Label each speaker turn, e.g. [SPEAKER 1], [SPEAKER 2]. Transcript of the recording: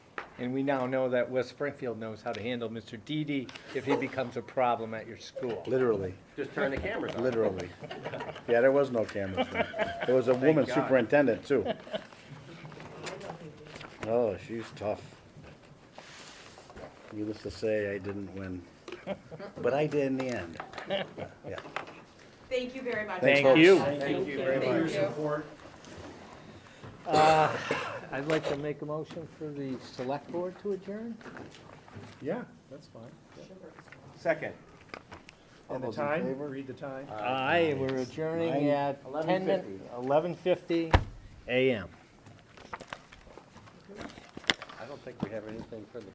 [SPEAKER 1] And we now know that West Springfield knows how to handle Mr. Didi if he becomes a problem at your school.
[SPEAKER 2] Literally,
[SPEAKER 3] Just turn the cameras on.
[SPEAKER 2] literally. Yeah, there was no cameras then. There was a woman
[SPEAKER 3] God.
[SPEAKER 2] superintendent too. Oh, she's tough. Needless to say, I didn't win, but I did in the end. Yeah.
[SPEAKER 4] Thank you very much.
[SPEAKER 1] Thank you.
[SPEAKER 3] Thank you very
[SPEAKER 4] Thank
[SPEAKER 3] much.
[SPEAKER 4] you.
[SPEAKER 1] I'd like to make a motion for the select board to adjourn.
[SPEAKER 5] Yeah, that's fine.
[SPEAKER 3] Second.
[SPEAKER 5] And the
[SPEAKER 2] those in
[SPEAKER 5] time,
[SPEAKER 2] favor?
[SPEAKER 5] read the time.
[SPEAKER 1] Aye, we're adjourning
[SPEAKER 2] Nine-
[SPEAKER 1] at ten min, eleven fifty AM.
[SPEAKER 3] I don't think we have anything for the